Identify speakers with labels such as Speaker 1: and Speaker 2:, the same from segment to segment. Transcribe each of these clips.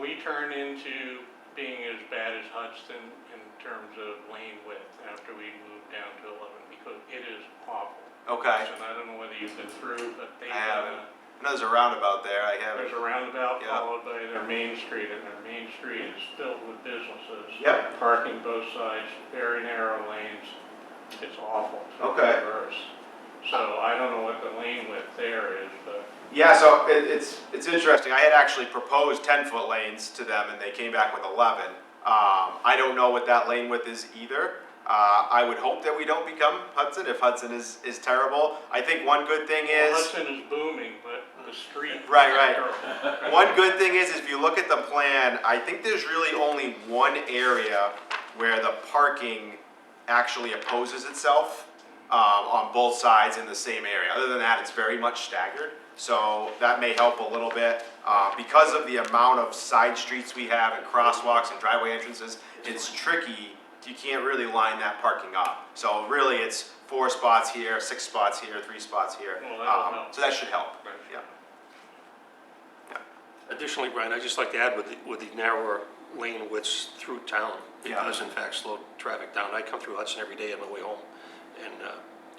Speaker 1: maybe turn into being as bad as Hudson in terms of lane width after we move down to eleven, because it is awful.
Speaker 2: Okay.
Speaker 1: And I don't know whether you've been through, but they
Speaker 2: I
Speaker 1: have,
Speaker 2: haven't.
Speaker 1: a-
Speaker 2: I know there's a roundabout there. I
Speaker 1: there's
Speaker 2: haven't.
Speaker 1: a roundabout
Speaker 2: Yeah.
Speaker 1: followed by their main street, and their main street is filled with businesses.
Speaker 2: Yep.
Speaker 1: Parking both sides, very narrow lanes, it's awful. to
Speaker 2: Okay.
Speaker 1: reverse. So I don't know what the lane width there is, but
Speaker 2: Yeah, so it, it's, it's interesting. I had actually proposed ten-foot lanes to them and they came back with eleven. Um, I don't know what that lane width is either. Uh, I would hope that we don't become Hudson if Hudson is, is terrible. I think one good thing
Speaker 1: Well,
Speaker 2: is.
Speaker 1: Hudson is booming, but the street.
Speaker 2: Right, right.
Speaker 1: Terrible.
Speaker 2: One good thing is, if you look at the plan, I think there's really only one area where the parking actually opposes itself um, on both sides in the same area. Other than that, it's very much staggered, so that may help a little bit. Uh, Because of the amount of side streets we have and crosswalks and driveway entrances, it's tricky. You can't really line that parking up. So really, it's four spots here, six spots here, three spots here.
Speaker 1: Well, that'll
Speaker 2: Um,
Speaker 1: help.
Speaker 2: So that should help,
Speaker 1: Right.
Speaker 2: yeah.
Speaker 3: Additionally, Brian, I'd just like to add with, the- with the narrower lane widths through town, it
Speaker 2: Yeah.
Speaker 3: does in fact slow traffic down. I come through Hudson every day on my way home, and uh,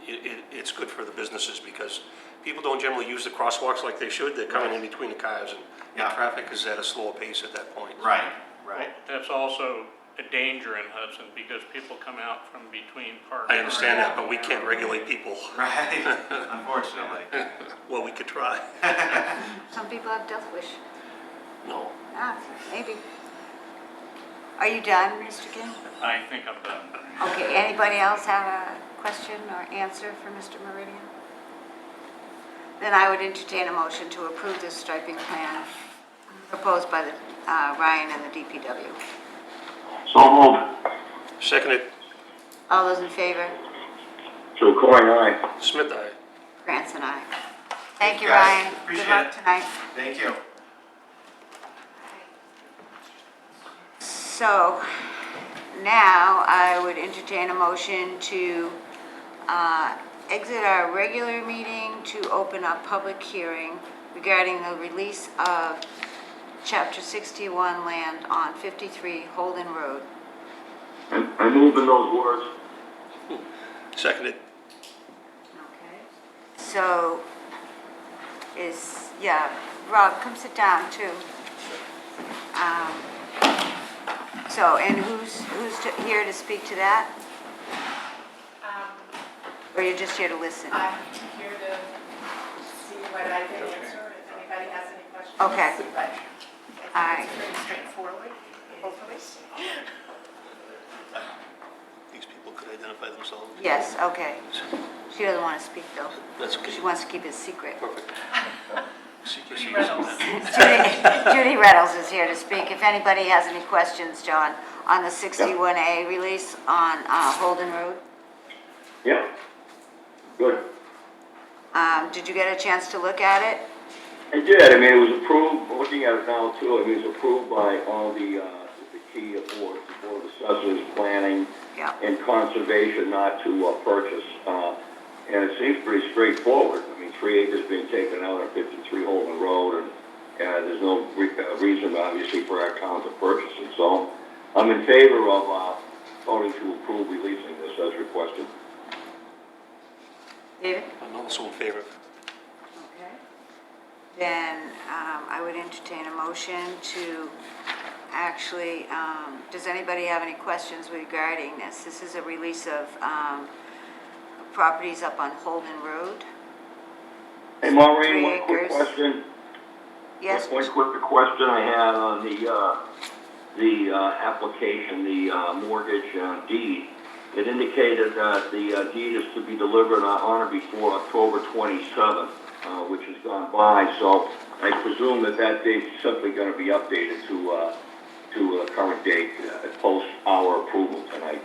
Speaker 3: it, it, it's good for the businesses because people don't generally use the crosswalks like they should. They're coming in between the cars, and,
Speaker 2: Yeah.
Speaker 3: and traffic is at a slower pace at that point.
Speaker 2: Right, right.
Speaker 1: That's also a danger in Hudson because people come out from between parks.
Speaker 3: I understand that, but we can't regulate people.
Speaker 2: Right, unfortunately.
Speaker 3: Well, we could try.
Speaker 4: Some people have death wish.
Speaker 3: No.
Speaker 4: Ah, maybe. Are you done, Mr. King?
Speaker 1: I think I'm done.
Speaker 4: Okay, anybody else have a question or answer for Mr. Meridian? Then I would entertain a motion to approve this striping plan proposed by the, uh, Ryan and the DPW.
Speaker 5: So moved.
Speaker 3: Seconded,
Speaker 4: All those in favor?
Speaker 5: Joe Coyne, aye.
Speaker 3: Smith, aye.
Speaker 4: Grants and I. Thank you,
Speaker 2: Guys,
Speaker 4: Ryan.
Speaker 2: appreciate
Speaker 4: Good luck
Speaker 2: it.
Speaker 4: tonight.
Speaker 2: Thank you.
Speaker 4: So now I would entertain a motion to uh, exit our regular meeting to open a public hearing regarding the release of Chapter 61 land on 53 Holden Road.
Speaker 5: I I moved in those words.
Speaker 3: Seconded,
Speaker 4: Okay. So is, yeah, Rob, come sit down too. Um, So, and who's, who's to- here to speak to that?
Speaker 6: Um,
Speaker 4: Or you're just here to listen?
Speaker 6: I'm here to see what I can answer, if anybody has any questions.
Speaker 4: Okay.
Speaker 6: But
Speaker 4: All
Speaker 6: I
Speaker 4: right.
Speaker 6: think it's pretty straightforward, hopefully.
Speaker 3: these people could identify themselves.
Speaker 4: Yes, okay. She doesn't want to speak though.
Speaker 3: That's okay.
Speaker 4: She wants to keep it secret.
Speaker 3: Perfect. Secrecy is-
Speaker 6: Reynolds.
Speaker 4: Judy Judy Reynolds is here to speak. If anybody has any questions, John, on the 61A release on uh, Holden Road,
Speaker 5: Yep. Good.
Speaker 4: Um, did you get a chance to look at it?
Speaker 5: I did, I mean, it was approved, looking at it now too, I mean, it was approved by all the, uh, the key boards, the board of assessors, planning,
Speaker 4: Yeah.
Speaker 5: and conservation not to uh, purchase. Uh, and it seems pretty straightforward. I mean, three acres being taken out on 53 Holden Road, and, and there's no re- uh, reason, obviously, for our town to purchase it. So I'm in favor of uh, voting to approve releasing this as requested.
Speaker 4: David?
Speaker 3: I'm also in favor.
Speaker 4: Okay. Then um, I would entertain a motion to actually, um, does anybody have any questions regarding this? This is a release of um, properties up on Holden Road.
Speaker 5: Hey, Maureen,
Speaker 4: Three
Speaker 5: one quick
Speaker 4: acres.
Speaker 5: question.
Speaker 4: Yes,
Speaker 5: One quick question I had on the, uh, the, uh, application, the, uh, mortgage uh, deed. It indicated that the uh, deed is to be delivered on or before October twenty-seventh, uh, which has gone by, so I presume that that date's simply gonna be updated to, uh, to a current date, uh, post our approval tonight.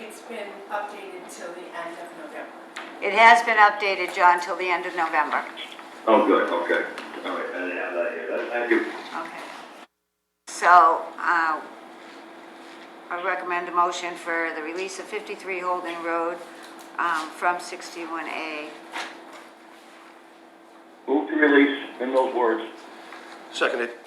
Speaker 6: It's been updated till the end of November.
Speaker 4: it has been updated, John, till the end of November.
Speaker 5: Oh, good, okay. All right, I didn't have that here. That- Thank you.
Speaker 4: Okay. So, uh, I recommend a motion for the release of 53 Holden Road um, from 61A.
Speaker 5: Move to release in those words.
Speaker 3: Seconded.